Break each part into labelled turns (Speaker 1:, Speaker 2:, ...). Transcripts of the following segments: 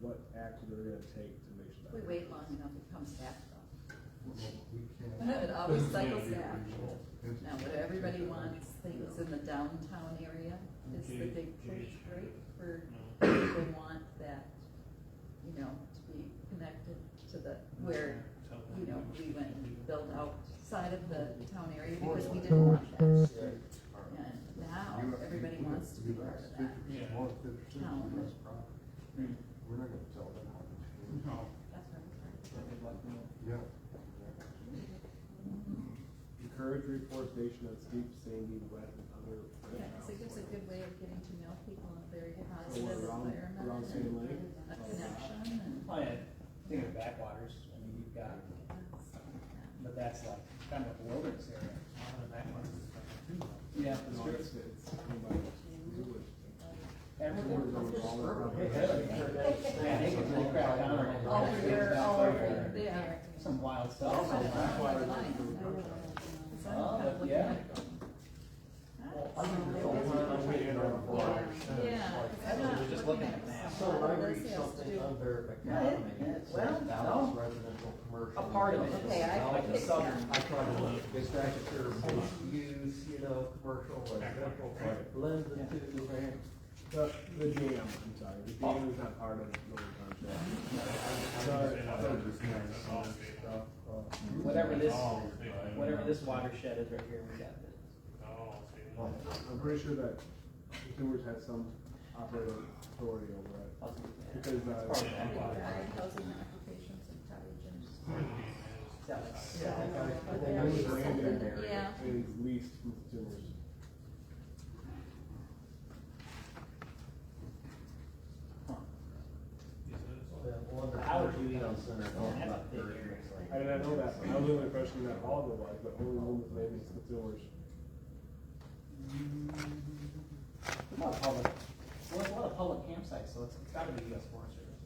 Speaker 1: what action they're gonna take to make sure
Speaker 2: If
Speaker 1: that.
Speaker 2: we wait long enough, it comes back though.
Speaker 3: We can't.
Speaker 2: It always
Speaker 3: Doesn't have to
Speaker 2: cycles
Speaker 3: be
Speaker 2: back.
Speaker 3: original.
Speaker 2: Now, what everybody wants, things in the downtown area is the big push, right? For people want that, you know, to be connected to the, where, you know, we went and built outside of the town area because we didn't want that. And now, everybody wants to be part of that.
Speaker 3: Yeah.
Speaker 2: Town.
Speaker 3: We're not gonna tell them how to change.
Speaker 4: No.
Speaker 2: That's what I'm trying
Speaker 3: Yeah.
Speaker 1: Encourage reforestation of steep, sandy, wet, and other.
Speaker 2: to- Yeah, because it gives a good way of getting to know people in a very positive
Speaker 1: Or Oh, around- around
Speaker 2: environment
Speaker 1: Sand Lake.
Speaker 2: and a connection and.
Speaker 5: Oh, yeah, think of backwaters, I mean, you've got, but that's like kind of a wilderness area. Yeah, that's
Speaker 1: No,
Speaker 5: true.
Speaker 1: it's, it's, you might do it.
Speaker 5: Everywhere.
Speaker 1: Everywhere goes all around.
Speaker 5: Yeah, they could really crack down on it.
Speaker 2: All over, all over,
Speaker 5: There's
Speaker 2: yeah.
Speaker 5: Some wild
Speaker 1: Also,
Speaker 5: stuff.
Speaker 1: that's why I
Speaker 2: Oh,
Speaker 1: like the
Speaker 2: yeah.
Speaker 1: road.
Speaker 2: So I'm kind of looking at it going,
Speaker 5: yeah.
Speaker 3: I think there's all kind of way in our lives, and it's
Speaker 2: Yeah.
Speaker 3: like-
Speaker 2: I'm not
Speaker 6: just looking
Speaker 2: at
Speaker 6: at maps.
Speaker 3: So when I
Speaker 2: This
Speaker 3: read
Speaker 2: has to
Speaker 3: something
Speaker 2: do-
Speaker 3: under
Speaker 5: Yeah, it-
Speaker 3: economy,
Speaker 5: it-
Speaker 3: it
Speaker 5: well,
Speaker 3: says balance
Speaker 5: no.
Speaker 3: residential, commercial.
Speaker 5: A part of it.
Speaker 2: Okay, I
Speaker 3: Now,
Speaker 2: can
Speaker 3: the
Speaker 2: fix
Speaker 3: sub-
Speaker 2: that.
Speaker 3: I try to look, it's actually sure most use, you know, commercial, residential,
Speaker 1: Right.
Speaker 3: blend the
Speaker 5: Yeah.
Speaker 3: two.
Speaker 1: The, the dam, I'm sorry, the dam is not part of the road contract. Sorry.
Speaker 5: Whatever this, whatever this watershed is right here, we got it.
Speaker 1: I'm pretty sure that consumers had some operating authority over it.
Speaker 5: I was looking at it.
Speaker 1: Because, uh,
Speaker 5: It's part of
Speaker 2: I
Speaker 5: backwater.
Speaker 2: require housing applications and cottage and-
Speaker 5: Is that like-
Speaker 3: Yeah, I think I- I think
Speaker 2: Yeah.
Speaker 3: I was
Speaker 1: Brand
Speaker 3: reading
Speaker 1: new
Speaker 3: there.
Speaker 2: Yeah.
Speaker 1: Is leased from consumers.
Speaker 5: Huh.
Speaker 3: That one that-
Speaker 5: How would you even-
Speaker 3: Center,
Speaker 5: That's
Speaker 3: oh,
Speaker 5: a
Speaker 3: about
Speaker 5: big
Speaker 3: thirty
Speaker 5: area.
Speaker 3: minutes later.
Speaker 1: I didn't know that, but I was under the impression that all of it was, but only one was made is consumers.
Speaker 5: What about public, well, it's a lot of public campsites, so it's gotta be US Forest Service.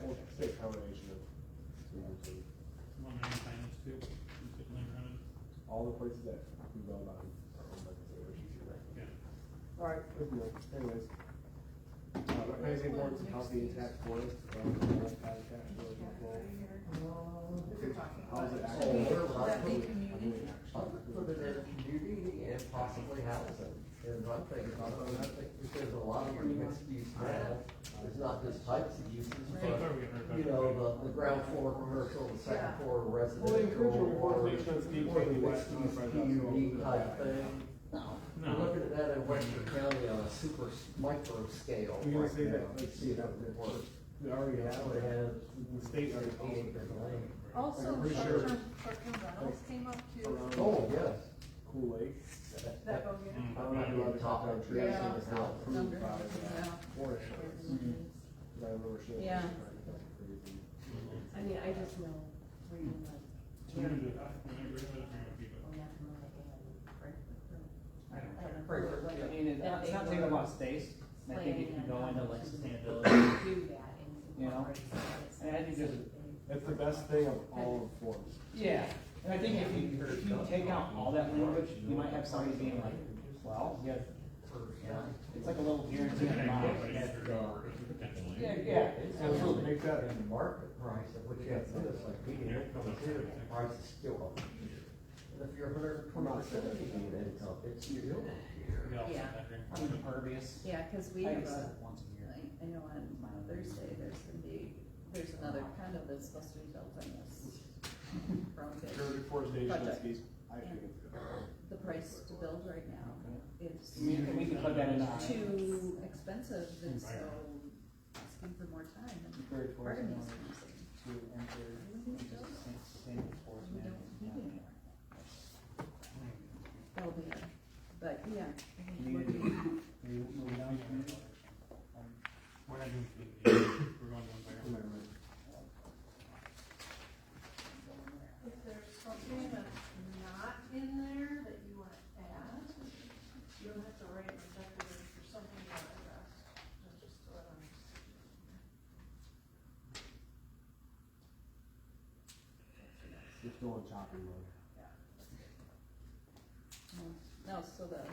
Speaker 1: Well, it's a combination of consumers and all the places that we build on are owned by consumers. Alright, good deal. anyways. Uh, recognize the importance of healthy intact forests, um, habitat, building control. How's it actually?
Speaker 3: Should we-
Speaker 2: that be community?
Speaker 3: I'll just put it in a community and possibly housing, is what I'm thinking about, and I think, because a lot of your mixed use now, it's not just types of uses, but, you know, the, the ground floor commercial, the second
Speaker 2: Yeah.
Speaker 3: floor
Speaker 1: Well, they encourage
Speaker 3: residential,
Speaker 1: you
Speaker 3: or,
Speaker 1: to
Speaker 3: or
Speaker 1: make sure it's
Speaker 3: mixed use
Speaker 1: deep in the west, not right down the
Speaker 3: PUD
Speaker 1: road.
Speaker 3: type thing.
Speaker 5: No.
Speaker 3: We're looking at that in Western County on a super s- micro scale
Speaker 1: You're gonna
Speaker 3: right
Speaker 1: say that,
Speaker 3: now.
Speaker 1: like, see that,
Speaker 3: would
Speaker 1: that
Speaker 3: work.
Speaker 1: we already
Speaker 3: That would
Speaker 1: have,
Speaker 3: have
Speaker 1: the state already owns
Speaker 3: eight
Speaker 1: it.
Speaker 3: acre
Speaker 1: Like,
Speaker 3: land.
Speaker 1: I'm
Speaker 7: Also,
Speaker 1: pretty
Speaker 7: short-term,
Speaker 1: sure-
Speaker 7: short-term rentals came up too.
Speaker 3: Oh,
Speaker 1: around
Speaker 3: yes.
Speaker 1: Cool Lake.
Speaker 7: That go get
Speaker 1: I don't know if you want to talk about trees,
Speaker 2: Yeah.
Speaker 1: it's not approved by
Speaker 2: Yeah.
Speaker 1: the forest. service.
Speaker 5: Mm-hmm.
Speaker 1: I remember seeing.
Speaker 2: Yeah.
Speaker 1: that, that's crazy.
Speaker 7: I mean, I just know reading like.
Speaker 3: Great.
Speaker 5: I mean, it- it's not taking a lot of space, and I think if you go into like sustainability,
Speaker 7: Do that and.
Speaker 5: You know? and I think there's, a-
Speaker 1: It's the best thing of all of forms.
Speaker 5: yeah, and I think if you, if you take out all that language, you might have somebody being like, well, yeah, yeah, it's like a little guarantee in Yeah, yeah,
Speaker 3: Absolutely.
Speaker 5: absolutely.
Speaker 3: Make that in the market price of what you have to do, it's like median income is here, the price is still up. And if you're hundred and twenty percent of median income, it's still.
Speaker 5: I'm impervious.
Speaker 2: Yeah, because we
Speaker 5: I
Speaker 2: have a,
Speaker 5: used that once a year.
Speaker 2: I, I know on Thursday, there's gonna be, there's another condo that's supposed to be built on this.
Speaker 1: Sure,
Speaker 2: Brownfield.
Speaker 1: deforestation is,
Speaker 2: Project.
Speaker 1: I think it's good.
Speaker 2: The price to build right now is
Speaker 5: I mean, we can put that in. our-
Speaker 2: too expensive, and so asking for more time, and
Speaker 5: Encourage
Speaker 2: part of me is
Speaker 5: tourism.
Speaker 2: gonna say,
Speaker 5: to enter into the same- same force
Speaker 2: Mm-hmm. We don't need
Speaker 5: management.
Speaker 2: it. well, we are. but, yeah. I think we're
Speaker 4: Community.
Speaker 2: being-
Speaker 5: We move down to- um,
Speaker 4: We're not doing community, we're going to
Speaker 1: Am I
Speaker 4: environment.
Speaker 1: right?
Speaker 7: If there's something that's not in there that you wanna add, you don't have to write an executive for something you wanna address, Just- just throw it on.
Speaker 1: Just go on chopping mode.
Speaker 2: 嗯 No, so the